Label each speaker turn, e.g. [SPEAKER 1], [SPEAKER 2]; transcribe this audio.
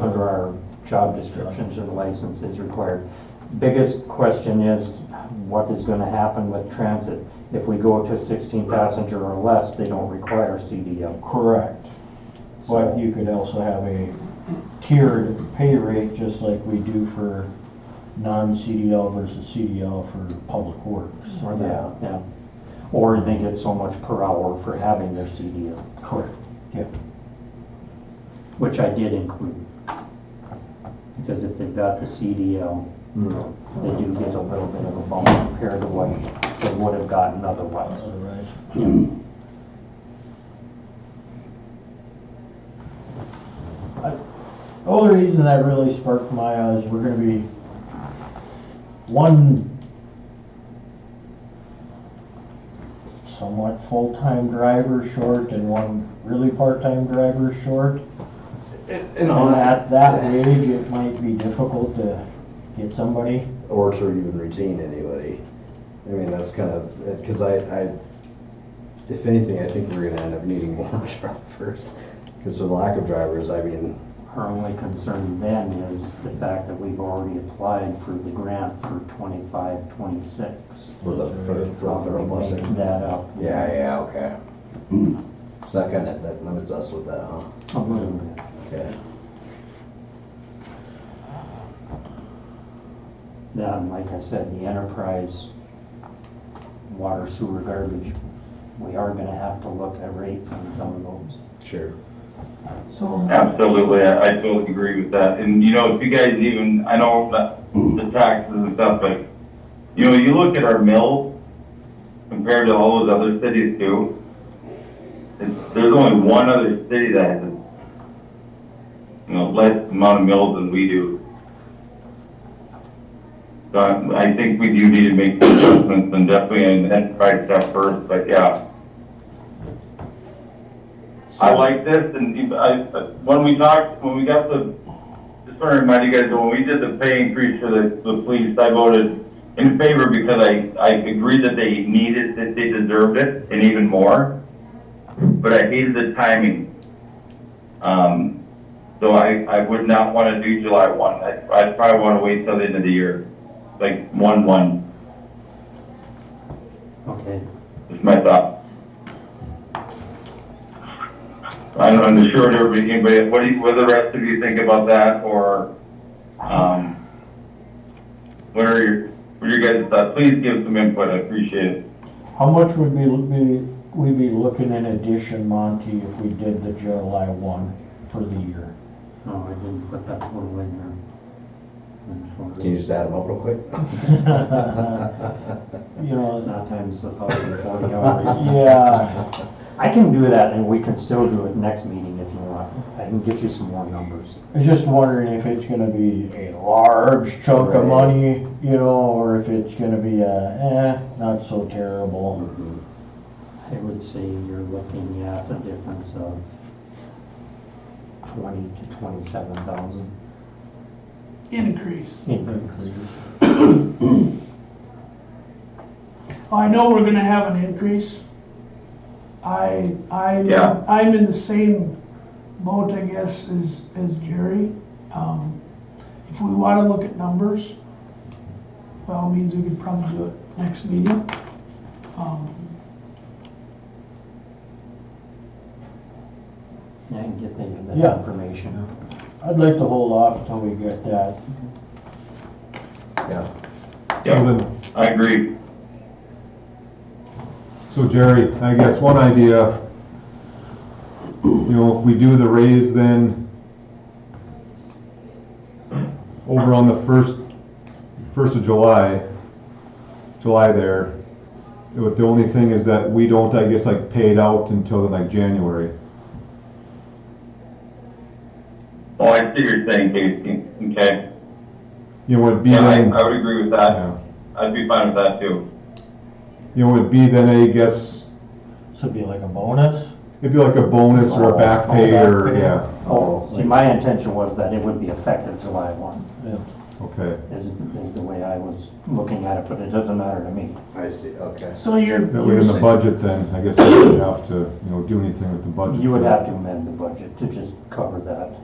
[SPEAKER 1] under our job descriptions and licenses required. Biggest question is, what is gonna happen with transit? If we go to sixteen passenger or less, they don't require CDL.
[SPEAKER 2] Correct, but
[SPEAKER 1] So
[SPEAKER 2] you could also have a tiered pay rate, just like we do for non-CDL versus CDL for public works.
[SPEAKER 1] Or that, yeah. Or they get so much per hour for having their CDL,
[SPEAKER 2] Correct,
[SPEAKER 1] which I did include. Because if they've got the CDL, they do get a little bit of a bump compared to what they would have gotten otherwise.
[SPEAKER 2] otherwise. The only reason that really sparked my eyes, we're gonna be one somewhat full-time driver short and one really part-time driver short.
[SPEAKER 3] And
[SPEAKER 2] And
[SPEAKER 3] on that,
[SPEAKER 2] at that age, it might be difficult to get somebody.
[SPEAKER 3] or to even retain anybody. I mean, that's kind of, because I, I, if anything, I think we're gonna end up needing more drivers. Because of the lack of drivers, I mean,
[SPEAKER 1] Our only concern then is the fact that we've already applied for the grant for twenty-five, twenty-six.
[SPEAKER 3] for the, for for the Hmm. federal
[SPEAKER 1] Probably make
[SPEAKER 3] busing.
[SPEAKER 1] That up.
[SPEAKER 3] Yeah, yeah, okay. So that kind of, that limits us with that, huh?
[SPEAKER 1] A little bit.
[SPEAKER 3] Okay.
[SPEAKER 1] Then, like I said, the enterprise, water, sewer, garbage, we are gonna have to look at rates on some of those.
[SPEAKER 3] Sure.
[SPEAKER 4] Absolutely, I, I totally agree with that. And you know, if you guys even, I know that the taxes and stuff, but you know, you look at our mills compared to all those other cities too. It's, there's only one other city that has, you know, less amount of mills than we do. So I, I think we do need to make some adjustments and definitely an enterprise step first, but yeah. I like this, and if- I, when we talked, when we got the, just want to remind you guys, when we did the pay increase for the, the police, I voted in favor because I, I agreed that they needed, that they deserved it, and even more. But I hated the timing. Um, so I, I would not want to do July one, I, I'd probably want to wait till the end of the year, like one, one,
[SPEAKER 1] Okay,
[SPEAKER 4] is my thought. I don't, I'm sure everybody, anybody, what do you, what do the rest of you think about that, or, um, what are your, what are your guys' thoughts? Please give some input, I appreciate it.
[SPEAKER 2] How much would we, be- we be looking in addition, Monty, if we did the July one for the year?
[SPEAKER 1] no, I didn't put that total in there.
[SPEAKER 3] Can you just add them up real quick? Uh,
[SPEAKER 2] You know,
[SPEAKER 1] Not times the thousand forty hours.
[SPEAKER 2] yeah,
[SPEAKER 1] I can do that and we can still do it next meeting if you want. I can get you some more numbers.
[SPEAKER 2] I was just wondering if it's gonna be a large chunk
[SPEAKER 3] Right.
[SPEAKER 2] of money, you know, or if it's gonna be a, eh, not so terrible.
[SPEAKER 3] Mhm.
[SPEAKER 1] I would say you're looking at a difference of twenty to twenty-seven thousand
[SPEAKER 5] increase.
[SPEAKER 1] increase.
[SPEAKER 5] I know we're gonna have an increase. I, I'm,
[SPEAKER 4] Yeah.
[SPEAKER 5] I'm in the same boat, I guess, as, as Jerry. Um, If we wanna look at numbers, by all means, we could probably do it next meeting. Um,
[SPEAKER 1] Yeah, I can get the,
[SPEAKER 2] Yeah.
[SPEAKER 1] the information.
[SPEAKER 2] I'd like to hold off till we get that.
[SPEAKER 3] Yeah.
[SPEAKER 4] Yeah,
[SPEAKER 6] Well,
[SPEAKER 4] I agree.
[SPEAKER 6] then, So Jerry, I guess one idea, you know, if we do the raise then over on the first, first of July, July there, it would- the only thing is that we don't, I guess, like pay it out until like January.
[SPEAKER 4] Oh, I see what you're saying, Casey, okay.
[SPEAKER 6] You know, it'd be
[SPEAKER 4] Yeah, I,
[SPEAKER 6] then,
[SPEAKER 4] I would agree with that,
[SPEAKER 6] yeah.
[SPEAKER 4] I'd be fine with that too.
[SPEAKER 6] you know, it'd be then, I guess,
[SPEAKER 2] This would be like a bonus.
[SPEAKER 6] it'd be like a bonus or a back
[SPEAKER 2] Oh,
[SPEAKER 6] pay
[SPEAKER 2] back
[SPEAKER 6] or,
[SPEAKER 2] pay.
[SPEAKER 6] yeah,
[SPEAKER 1] Oh, see, my intention was that it would be effective July one,
[SPEAKER 6] okay.
[SPEAKER 1] is, is the way I was looking at it, but it doesn't matter to me.
[SPEAKER 3] I see, okay.
[SPEAKER 5] So you're,
[SPEAKER 6] That way
[SPEAKER 5] you're
[SPEAKER 6] in the
[SPEAKER 5] s-
[SPEAKER 6] budget then, I guess we would have to, you know, do anything with the budget.
[SPEAKER 1] You would
[SPEAKER 6] for-
[SPEAKER 1] have to amend the budget to just cover that.